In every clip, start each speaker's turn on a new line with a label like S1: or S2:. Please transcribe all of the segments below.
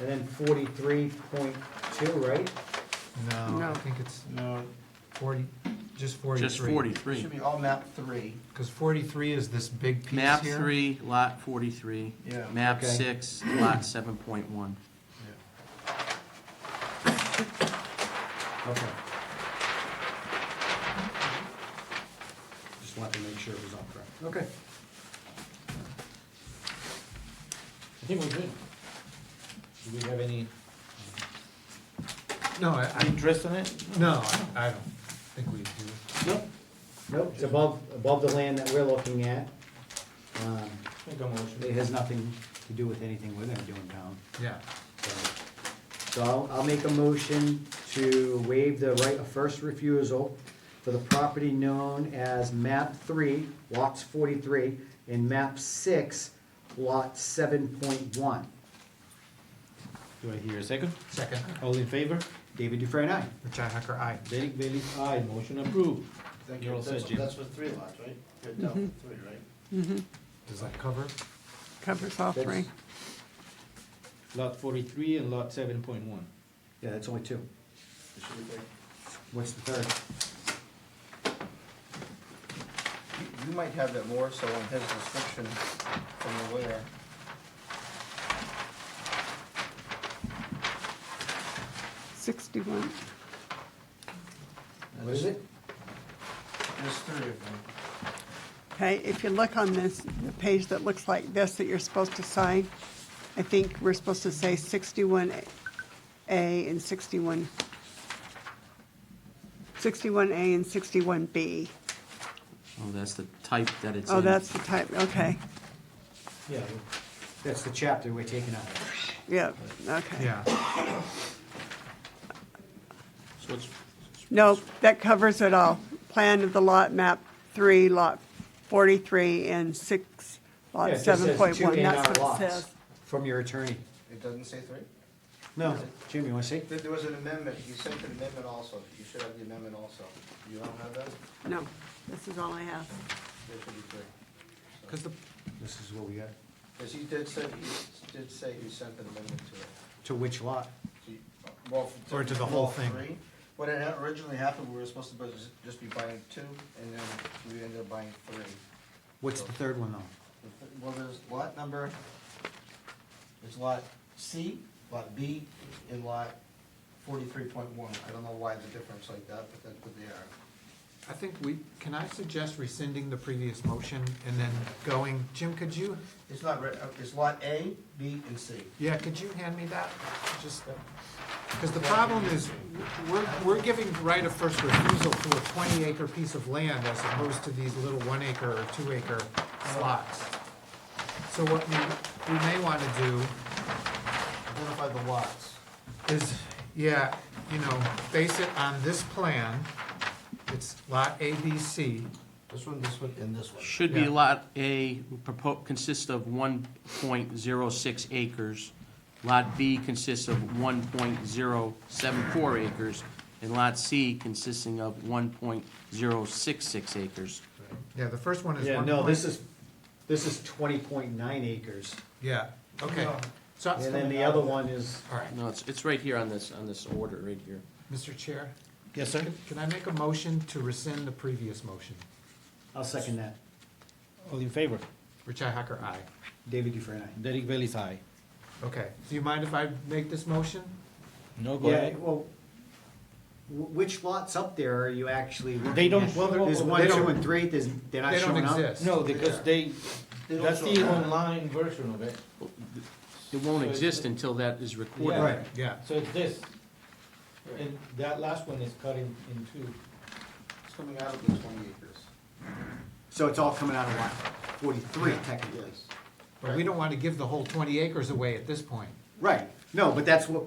S1: And then forty-three point two, right?
S2: No, Uh, I
S3: No.
S2: think it's
S4: No,
S2: forty, just forty-three.
S5: Just
S4: it should
S5: 43.
S4: be all map three.
S2: Because forty-three is this big piece here.
S5: Map 3, Lot 43.
S4: Yeah.
S5: Map
S1: Okay.
S5: 6, Lot 7.1.
S1: Okay. Just wanted to make sure it was all correct. Okay. I think we're good. Do we have any?
S2: No, I, I,
S4: Interest in it?
S2: no, I don't- I don't think we do.
S1: Nope. Nope, it's above, above the land that we're looking at. Um,
S4: Make a motion.
S1: It has nothing to do with anything we're gonna do in town.
S2: Yeah,
S1: So I'll, I'll make a motion to waive the right of first refusal for the property known as map three, lots forty-three, and map six, lot seven point one.
S4: Do I hear a second?
S2: second,
S4: All in favor?
S1: David Dufresne, aye.
S2: Richi Hacker, aye.
S4: Derek Bailey's aye, motion approved.
S6: Thank
S4: You're
S6: you.
S4: all set,
S6: That's,
S4: Jim.
S6: that's with three lots, right? You're down with three, right?
S2: Does that cover?
S3: Covers all three.
S4: Lot forty-three and lot seven point one.
S1: Yeah, that's only two.
S6: It should be three.
S1: What's the third?
S4: You might have that more so in his description from the where.
S3: Sixty-one.
S1: What is it?
S4: There's three of them.
S3: Okay, if you look on this, the page that looks like this that you're supposed to sign, I think we're supposed to say sixty-one A and sixty-one. Sixty-one A and sixty-one B.
S5: Oh, that's the type that it's in.
S3: Oh, that's the type, okay,
S1: Yeah. That's the chapter we're taking out.
S3: yeah, okay.
S2: Yeah,
S4: So it's,
S3: No, that covers it all. Plan of the lot, map three, lot forty-three, and six,
S1: Yeah,
S3: lot
S1: it just says
S3: seven point one,
S1: two
S3: that's
S1: A&R
S3: what it
S1: lots
S3: says.
S1: From your attorney.
S6: It doesn't say three?
S1: No, Jim, you wanna see?
S6: There, there was an amendment, you sent an amendment also, you should have the amendment also. You don't have that?
S3: No, this is all I have.
S6: There should be three.
S2: because the,
S1: This is what we got.
S6: Cause he did say, he did say he sent an amendment to it.
S1: To which lot?
S6: So you- Well.
S2: Or to the whole
S6: well,
S2: thing.
S6: three. What had originally happened, we were supposed to bus- just be buying two, and then we ended up buying three.
S1: What's the third one though?
S6: The th- Well, there's lot number, there's lot C, lot B, and lot forty-three point one. I don't know why the difference like that, but that's what they are.
S2: I think we, can I suggest rescinding the previous motion and then going, Jim, could you,
S6: It's not, re- uh, it's lot A, B, and C.
S2: yeah, could you hand me that? Just, because the problem is, we're, we're giving right of first refusal to a twenty acre piece of land as opposed to these little one acre or two acre slots. So what we, we may want to do
S6: Identify the lots.
S2: is, yeah, you know, base it on this plan. It's lot A, B, C.
S6: This one, this one, and this one.
S5: Should be
S2: Yeah.
S5: Lot A, propo- consists of 1.06 acres. Lot B consists of 1.074 acres. And Lot C consisting of 1.066 acres.
S2: Yeah, the first one is
S1: Yeah,
S2: one
S1: no,
S2: point-
S1: this is, this is twenty point nine acres.
S2: Yeah, okay. So,
S1: And then the other one is,
S2: all right,
S5: No, it's, it's right here on this, on this order, right here.
S2: Mr. Chair,
S4: yes, sir?
S2: can I make a motion to rescind the previous motion?
S1: I'll second that.
S4: All in favor?
S2: Richi Hacker, aye.
S1: David Dufresne, aye.
S4: Derek Bailey's aye.
S2: Okay, do you mind if I make this motion? Oh,
S4: No, go
S1: Yeah,
S4: ahead.
S1: well, wh- which lots up there are you actually looking at?
S4: They don't- well,
S1: There's
S4: well,
S1: one,
S2: they
S1: two,
S2: don't-
S1: and three, there's, they're not
S2: They don't
S1: showing up?
S2: exist.
S4: No, because they,
S6: They don't
S4: that's
S6: show
S4: the
S6: that.
S4: online version of it.
S5: It won't
S4: So it's-
S5: exist until that is recorded.
S4: Yeah.
S1: Right,
S2: Yeah,
S4: So it's this. And that last one is cut in, in two.
S6: It's coming out of the twenty acres.
S1: so it's all coming out of lot forty-three technically.
S6: Yes.
S2: but we don't want to give the whole twenty acres away at this point.
S1: Right, no, but that's what,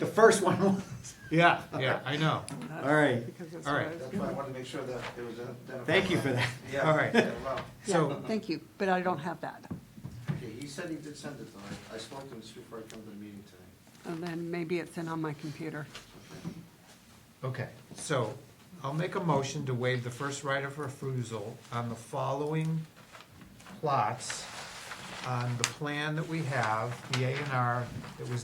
S1: the first one was.
S2: Yeah, yeah, I know.
S3: That's
S1: All right.
S3: because that's
S2: All
S3: what I
S2: right.
S3: was
S6: That's
S3: gonna-
S6: why I wanted to make sure that it was identified.
S1: Thank you for that.
S6: Yeah.
S2: All right.
S6: yeah, well,
S3: Yeah,
S2: So,
S3: thank you, but I don't have that.
S6: Okay, he said he did send it though. I- I spoke to him just before I come to the meeting tonight.
S3: And then maybe it's in on my computer.
S6: Okay.
S2: Okay, so I'll make a motion to waive the first right of refusal on the following plots on the plan that we have, the A and R that was